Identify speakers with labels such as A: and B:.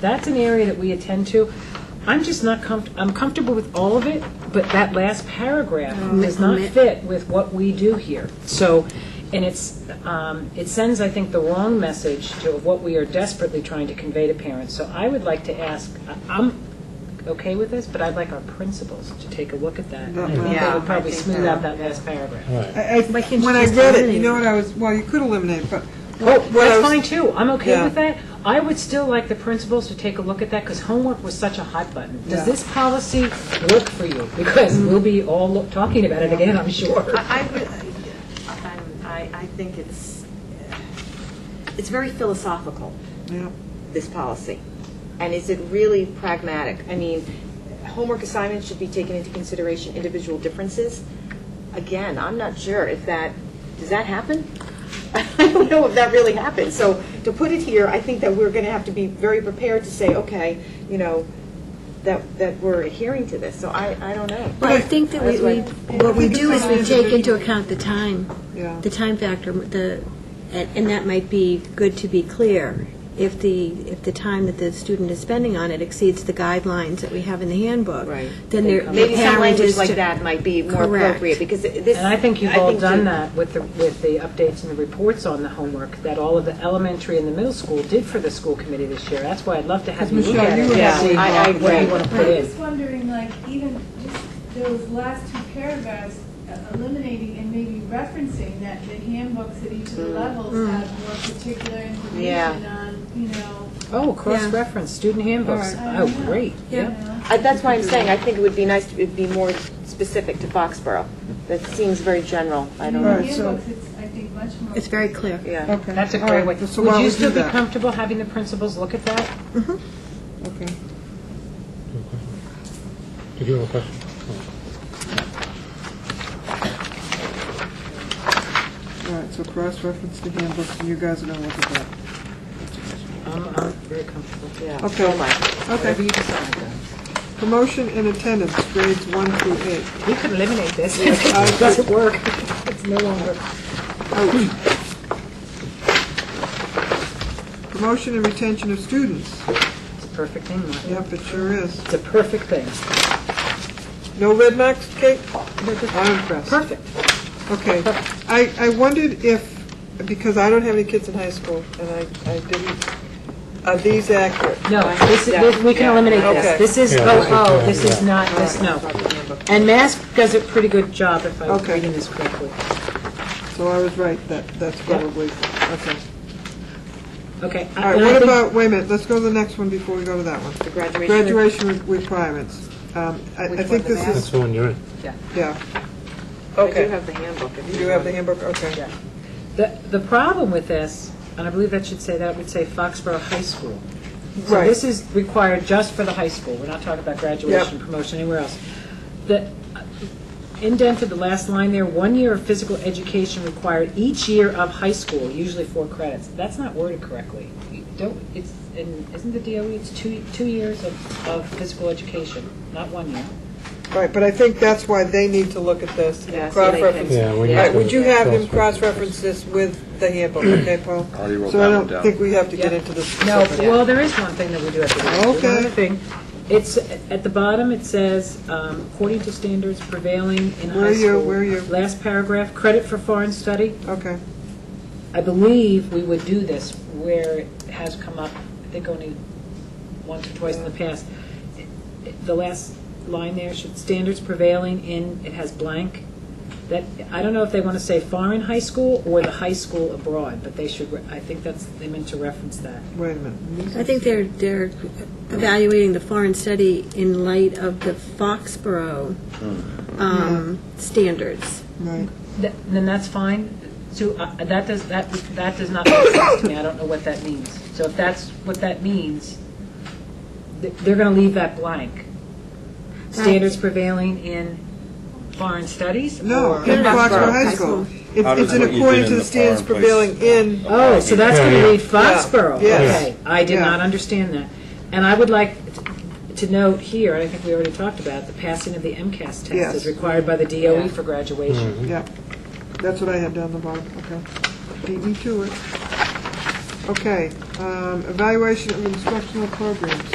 A: That's an area that we attend to. I'm just not comfort, I'm comfortable with all of it, but that last paragraph
B: Mm-hmm.
A: does not fit with what we do here. So, and it's, um, it sends, I think, the wrong message to what we are desperately trying to convey to parents. So I would like to ask, I- I'm okay with this, but I'd like our principals to take a look at that. I think
B: Yeah,
A: That
B: I
A: would probably
B: think
A: smooth
B: so,
A: out that last paragraph.
C: I, I,
B: Why can't you
C: when I
B: just
C: read it,
B: eliminate
C: you know
B: it?
C: what I was, well, you could eliminate, it, but.
A: Oh,
C: what I
A: that's
C: was-
A: fine too, I'm okay
C: Yeah.
A: with that. I would still like the principals to take a look at that, because homework was such a hot button. Does
C: Yeah. Mm-hmm.
A: this policy work for you? Because we'll be all lo- talking about it again, I'm sure.
B: I, I would- I'm- I, I think it's, it's very philosophical,
C: Yeah.
B: this policy. And is it really pragmatic? I mean, homework assignments should be taken into consideration individual differences. Again, I'm not sure if that, does that happen? I don't know if that really happens. So to put it here, I think that we're going to have to be very prepared to say, okay, you know, that, that we're adhering to this. So I, I don't know.
D: Well, I think that we, we- what we do is we take into account the time,
C: Yeah.
D: the time factor, the, and and that might be good to be clear. If the, if the time that the student is spending on it exceeds the guidelines that we have in the handbook,
B: Right.
D: then there, the
B: Maybe some
D: parent
B: language
D: is
B: like
D: to-
B: that might be more
D: Correct.
B: appropriate, because this.
A: And I think you've all
B: think
A: done
B: you-
A: that with the, with the updates and the reports on the homework that all of the elementary and the middle school did for the school committee this year. That's why I'd love to have you look
C: Michelle,
A: at
C: you
A: it.
C: were
A: and see
C: actually
B: I- I
A: what- What you
B: agree.
A: want to put
E: I'm
A: in.
E: just wondering, like, even just those last two paragraphs, uh, eliminating and maybe referencing that the handbooks at each of the levels have more particular
B: Mm. Yeah.
E: information on, you know,
A: Oh, cross-reference, student handbooks.
E: All right.
A: Oh, great,
E: you
A: yeah.
E: know.
B: I- Uh, That's why I'm saying, I think it would be nice to be more specific to Foxborough. That seems very general, I don't
E: The
C: Right.
B: know.
C: so-
E: handbooks, it's, I think, much more.
D: It's very clear.
B: Yeah.
C: Okay.
A: That's a
C: all
A: great way.
C: right, So
A: Would
C: why would
A: you
C: you
A: still be
C: do that?
A: comfortable having the principals look at that?
C: Okay.
F: Did you have a question?
C: All right, so cross-reference to handbooks, and you guys are gonna look at that.
A: I'm, I'm very comfortable.
B: Yeah.
C: Okay.
B: Oh, my.
A: Whatever
C: Okay,
A: you decide, though.
C: promotion and attendance, grades one through eight.
A: We could eliminate this. It doesn't work. It's no longer.
C: Promotion and retention of students.
A: It's a perfect thing, Martha.
C: Yep, it sure is.
A: It's a perfect thing.
C: No red marks, Kate? I'm impressed.
A: Perfect.
C: Okay. I, I wondered if, because I don't have any kids in high school, and I, I didn't, are these accurate?
A: No, this is, this- we can eliminate
C: Okay.
A: this. This is,
F: Yeah,
A: oh,
F: this is,
A: oh,
F: uh,
A: this is
F: yeah.
A: not, this, no. And mask does a pretty good job if I'm
C: Okay.
A: reading this correctly.
C: So I was right, that, that's probably, okay.
A: Okay.
C: All right, what about, wait a minute, let's go to the next one before we go to that one.
B: The graduation.
C: Graduation re- requirements. Um, I, I think this
F: That's
C: is,
F: the one you're in.
C: yeah.
B: I do
C: Okay.
B: have the handbook. if
C: You do have the handbook, okay.
A: The, the problem with this, and I believe that should say, that would say Foxborough High School. So
C: Right.
A: this is required just for the high school, we're not talking about graduation,
C: Yep.
A: promotion, anywhere else. The, indented the last line there, one year of physical education required each year of high school, usually four credits. That's not worded correctly. You Don't, it's, and isn't the DOE, it's two, two years of, of physical education, not one year.
C: All right, but I think that's why they need to look at this.
B: Yeah, so they can-
C: Cross-reference
F: Yeah, we
C: All
F: need
C: right, would
F: to
C: you have him cross-reference
F: cross-reference.
C: this with the handbook, okay, Paul?
G: I already wrote
C: So
G: that
C: I
G: one
C: don't
G: down.
C: think we have to get
A: Yeah.
C: into the
A: No,
C: specifics.
A: well, there is one thing that we do have to do.
C: Okay.
A: One other thing, it's, at the bottom, it says, um, according to standards prevailing in
C: Where
A: high
C: are you-
A: school.
C: where are you?
A: Last paragraph, credit for foreign study.
C: Okay,
A: I believe we would do this where it has come up, I think only once or twice in the past. It- it- The last line there should, standards prevailing in, it has blank. That, I don't know if they want to say foreign high school or the high school abroad, but they should, re- I think that's, they meant to reference that.
C: wait a minute.
D: I think they're, they're evaluating the foreign study in light of the Foxborough um, standards.
C: Right.
A: Th- Then that's fine. So uh, that does, that, that does not make sense to me. I don't know what that means. So if that's what that means, th- they're going to leave that blank. Standards prevailing in foreign studies?
C: No,
A: or-
C: in Foxborough High School. It-
G: How does
C: It's in
G: what you
C: according
G: did
C: to the
G: in the
C: standards
G: foreign
C: prevailing
G: place-
C: in,
A: Oh, so that's going
F: Yeah,
A: to
F: yeah.
A: read Foxborough?
C: Yeah.
A: Okay, I did
C: Yeah.
A: not understand that. And I would like t- to note here, and I think we already talked about, it, the passing of the MCAS test
C: Yes.
A: is required by the DOE for graduation.
C: yeah. That's what I had down the bottom, okay. Beat me to it. Okay, um, evaluation of instructional programs.